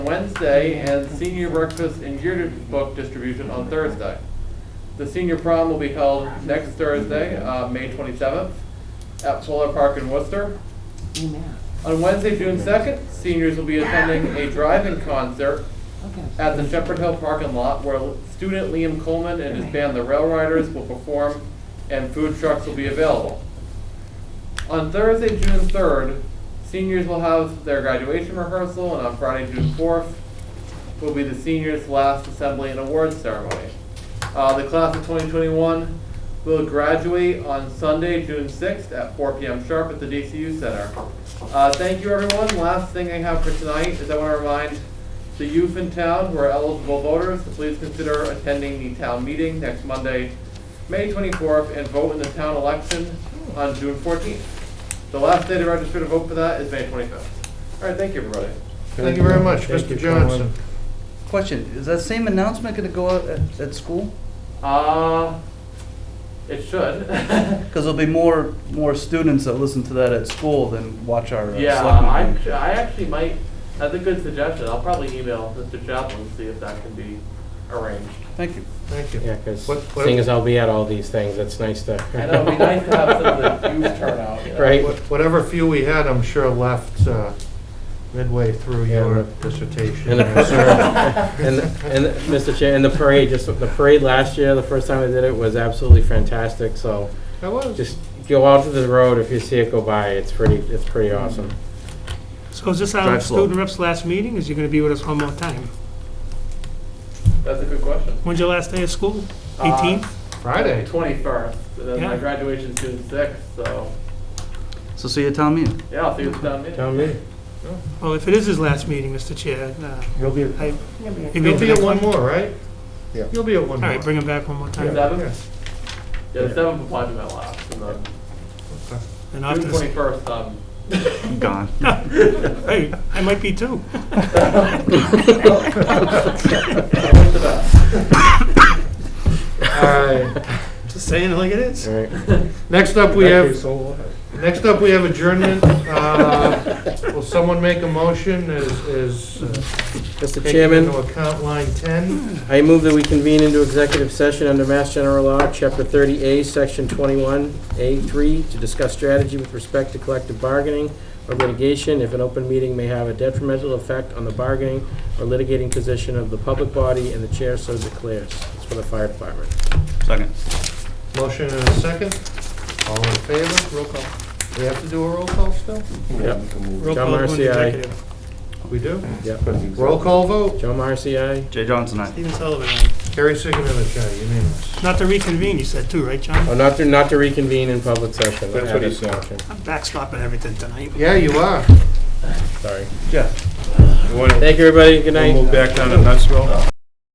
Wednesday and senior breakfast and yearbook distribution on Thursday. The senior prom will be held next Thursday, uh, May 27th, at Fuller Park in Worcester. Amen. On Wednesday, June 2nd, seniors will be attending a drive-in concert Okay. at the Shepherd Hill parking lot where student Liam Coleman and his band The Rail Riders will perform and food trucks will be available. On Thursday, June 3rd, seniors will have their graduation rehearsal and on Friday, June 4th, will be the seniors' last assembly and awards ceremony. Uh, the class of 2021 will graduate on Sunday, June 6th at 4 p.m. sharp at the DCU Center. Uh, thank you, everyone. Last thing I have for tonight is I want to remind the youth in town who are eligible voters to please consider attending the town meeting next Monday, May 24th, and vote in the town election on June 14th. The last day to register to vote for that is May 25th. All right, thank you, everybody. Thank you very much, Thank Mr. you, Johnson. Question, is that same announcement gonna go out at, at school? Uh, it should. Because there'll be more, more students that listen to that at school than watch our uh, yeah, um, selectmen I, meeting. I actually might. That's a good suggestion. I'll probably email Mr. Chaplin to see if that can be arranged. Thank you. Thank you. Yeah, because What- what- seeing as I'll be at all these things, it's nice to. I know it'd be nice to have some of the youth turn out. you know. Right. What- Whatever few we had, I'm sure left uh, midway through Yeah, your but- dissertation. And the and, and Mr. Chair, and the parade, just the parade last year, the first time I did it was absolutely fantastic. So I was. just go out to the road if you see it go by. It's pretty. It's pretty awesome. So is this our Drive slow. student rep's last meeting? Is you going to be with us one more time? That's a good question. When's your last day of school? Uh, 18th? Friday. Twenty-first, and then my Yeah. graduation's June sixth, so, So see you at town meeting. yeah, I'll see what's down there. Tell me. Well, if it is his last meeting, Mr. Chair, uh, You'll be, I... you mean you'll for be at next one more, right? Yeah. You'll be at one All more. right, bring him back one more time. Seven? Yeah. Yeah, the seventh will probably be my last, and then Okay. And after June this- twenty-first, um, I'm gone. Hey, I might be too. what's the best? All right. Just saying it like it is. All right. Next up, we have, next up, we have adjournment. Uh, Will someone make a motion Is is uh, Mr. taking Chairman. into account line 10? I move that we convene into executive session under Mass General Law, Chapter 30A, Section 21A3, to discuss strategy with respect to collective bargaining or litigation if an open meeting may have a detrimental effect on the bargaining or litigating position of the public body and the chair so declares. It's for the fire department. Second. Motion and a second. All in favor? Roll call. We have to do a roll call still? Yep. Roll call to John go into Marcy, aye. executive. We do? Yep. Roll call vote. Joe Marcy, aye. Jay Johnson, aye. Stephen Sullivan, aye. Carrie Signature, aye, unanimous. Not to reconvene, you said too, right, John? Oh, not to, not to reconvene in public session. That's what he said. Option. I'm backstopping everything tonight. Yeah, you are. Sorry. Thank you, everybody. Good night. back down to Nutsville.